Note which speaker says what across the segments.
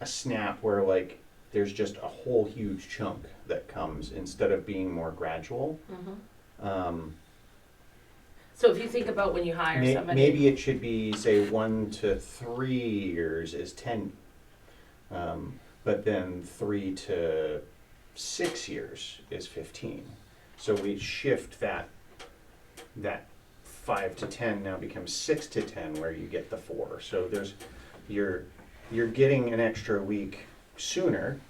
Speaker 1: a snap where like there's just a whole huge chunk that comes instead of being more gradual. Um,
Speaker 2: So if you think about when you hire
Speaker 1: may-
Speaker 2: somebody,
Speaker 1: maybe it should be say one to three years is ten, um, but then three to six years is fifteen. So we shift that that five to ten now becomes six to ten where you get the four. So there's you're you're getting an extra week sooner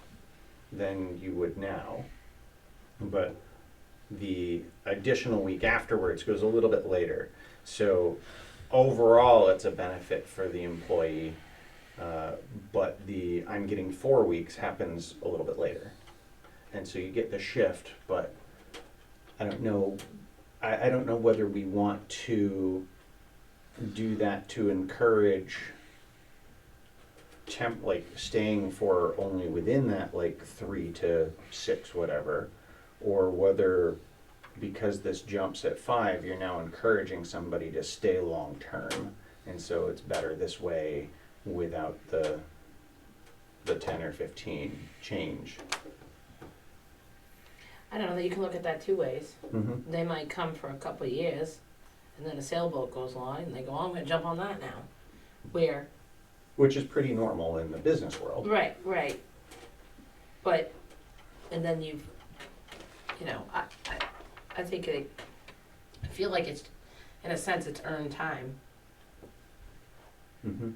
Speaker 1: than you would now, but the additional week afterwards goes a little bit later. So overall, it's a benefit for the employee, uh, but the I'm getting four weeks happens a little bit later. And so you get the shift, but I don't know, I, I don't know whether we want to do that to encourage temp, like staying for only within that like three to six, whatever, or whether because this jumps at five, you're now encouraging somebody to stay long term, and so it's better this way without the the ten or fifteen change.
Speaker 2: I don't know, you can look at that two ways.
Speaker 1: Mm-hmm.
Speaker 2: They might come for a couple of years, and then a sailboat goes along, and they go, oh, I'm going to jump on that now. Where?
Speaker 1: Which is pretty normal in the business world.
Speaker 2: Right, right. But, and then you've, you know, I, I, I think it, I feel like it's, in a sense, it's earned time.
Speaker 1: Mm-hmm.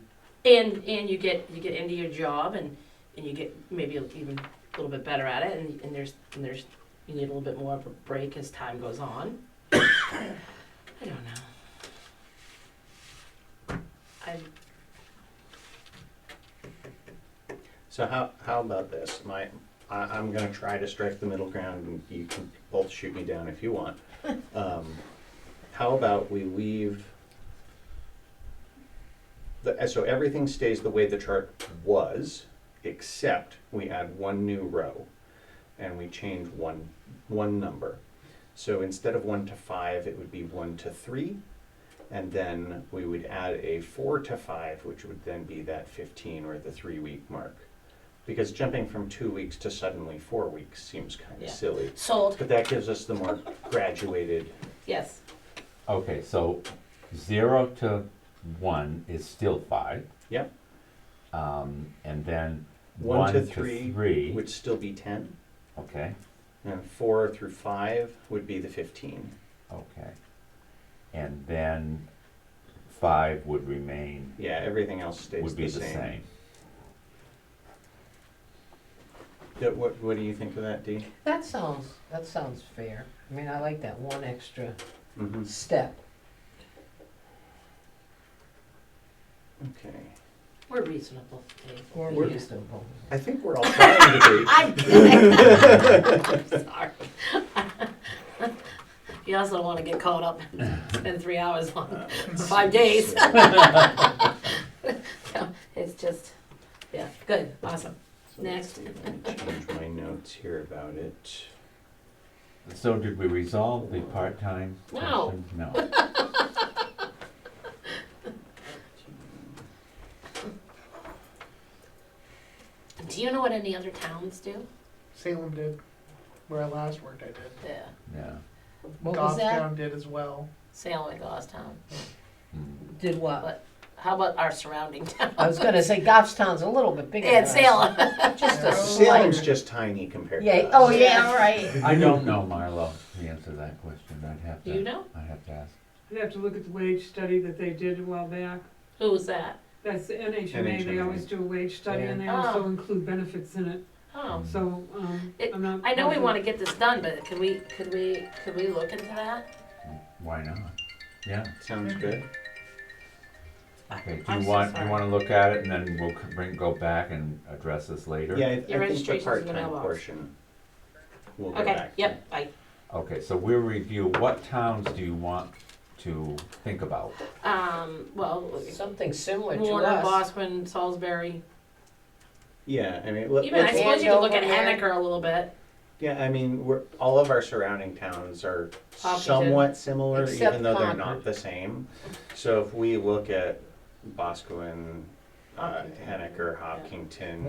Speaker 2: and and you get you get into your job and and you get maybe even a little bit better at it and, and there's and there's you need a little bit more of a break as time goes on i don't know i
Speaker 1: So how how about this? My I, I'm gonna try to strike the middle ground, and you can both shoot me down if you want. Um, how about we leave? The, so everything stays the way the chart was, except we add one new row, and we change one one number. So instead of one to five, it would be one to three, and then we would add a four to five, which would then be that fifteen or the three week mark. Because jumping from two weeks to suddenly four weeks seems kind of
Speaker 2: Yeah.
Speaker 1: silly.
Speaker 2: sold
Speaker 1: But that gives us the more graduated.
Speaker 2: yes
Speaker 3: Okay, so zero to one is still five,
Speaker 1: Yep.
Speaker 3: um, and then
Speaker 1: One,
Speaker 3: one
Speaker 1: to,
Speaker 3: to
Speaker 1: three,
Speaker 3: three.
Speaker 1: would still be 10.
Speaker 3: okay,
Speaker 1: And four through five would be the 15.
Speaker 3: okay, and then five would remain
Speaker 1: Yeah, everything else stays
Speaker 3: would be
Speaker 1: the, same.
Speaker 3: same.
Speaker 1: That- what, what do you think of that, Dee?
Speaker 4: That sounds, that sounds fair. I mean, I like that one extra
Speaker 1: Mm-hmm.
Speaker 4: step.
Speaker 1: Okay.
Speaker 2: we're reasonable Dave.
Speaker 4: We're
Speaker 2: Yeah.
Speaker 4: reasonable.
Speaker 1: I think we're all trying to be.
Speaker 2: I did. I'm sorry. you also don't want to get caught up and spend three hours on five days. so it's just, yeah, good, awesome.
Speaker 1: So let's see,
Speaker 2: Next.
Speaker 1: Let me change my notes here about it.
Speaker 3: So did we resolve the part-time
Speaker 2: No.
Speaker 3: question? No.
Speaker 2: Do you know what any other towns do?
Speaker 5: Salem did. Where I last worked, I did.
Speaker 2: Yeah,
Speaker 3: Yeah.
Speaker 4: What was that?
Speaker 5: Goffstown did as well.
Speaker 2: Salem and Goffstown.
Speaker 3: Mm.
Speaker 4: Did what?
Speaker 2: How about our surrounding towns?
Speaker 4: I was gonna say Goffstown's a little bit bigger.
Speaker 2: And
Speaker 4: than us.
Speaker 2: Salem.
Speaker 4: Just a
Speaker 2: Oh,
Speaker 1: Salem's
Speaker 4: slight.
Speaker 1: just tiny compared
Speaker 4: Yeah,
Speaker 1: to
Speaker 4: oh
Speaker 1: us.
Speaker 4: yeah, all right.
Speaker 3: I don't know, Marlo, the answer to that question. I'd have
Speaker 2: Do you
Speaker 3: to,
Speaker 2: know?
Speaker 3: I'd have to ask.
Speaker 6: I'd have to look at the wage study that they did a while back.
Speaker 2: Who was that?
Speaker 6: That's the NHMA, they
Speaker 1: NHMA.
Speaker 6: always do a wage study and they
Speaker 2: Yeah.
Speaker 6: also
Speaker 2: Oh.
Speaker 6: include benefits in it,
Speaker 2: Oh.
Speaker 6: so, um,
Speaker 2: It-
Speaker 6: I'm not.
Speaker 2: I know we want to get this done, but could we, could we, could we look into that?
Speaker 3: Why not? Yeah,
Speaker 1: Sounds good.
Speaker 3: okay, do
Speaker 2: I'm
Speaker 3: you
Speaker 2: so
Speaker 3: want,
Speaker 2: sorry.
Speaker 3: you wanna look at it and then we'll c- bring, go back and address this later?
Speaker 1: Yeah, I, I think the
Speaker 2: registration's in the
Speaker 1: part-time
Speaker 2: mailbox.
Speaker 1: portion. We'll go
Speaker 2: Okay,
Speaker 1: back to.
Speaker 2: yep, I,
Speaker 3: Okay, so we'll review, what towns do you want to think about?
Speaker 2: um, well,
Speaker 4: Something similar to
Speaker 2: Warner,
Speaker 4: us.
Speaker 2: Bosquen, Salisbury.
Speaker 1: Yeah, I mean, let,
Speaker 2: Even I
Speaker 1: let's,
Speaker 2: suppose you could look at
Speaker 4: Andover.
Speaker 2: Henniker a little bit.
Speaker 1: yeah, I mean, we're, all of our surrounding towns are
Speaker 2: Hopkinton.
Speaker 1: somewhat similar,
Speaker 4: Except
Speaker 1: even though they're
Speaker 4: Concord.
Speaker 1: not the same. So if we look at Boscawen, uh,
Speaker 2: Hopkinton.
Speaker 1: Henniker,
Speaker 2: Yeah.
Speaker 1: Hopkinton,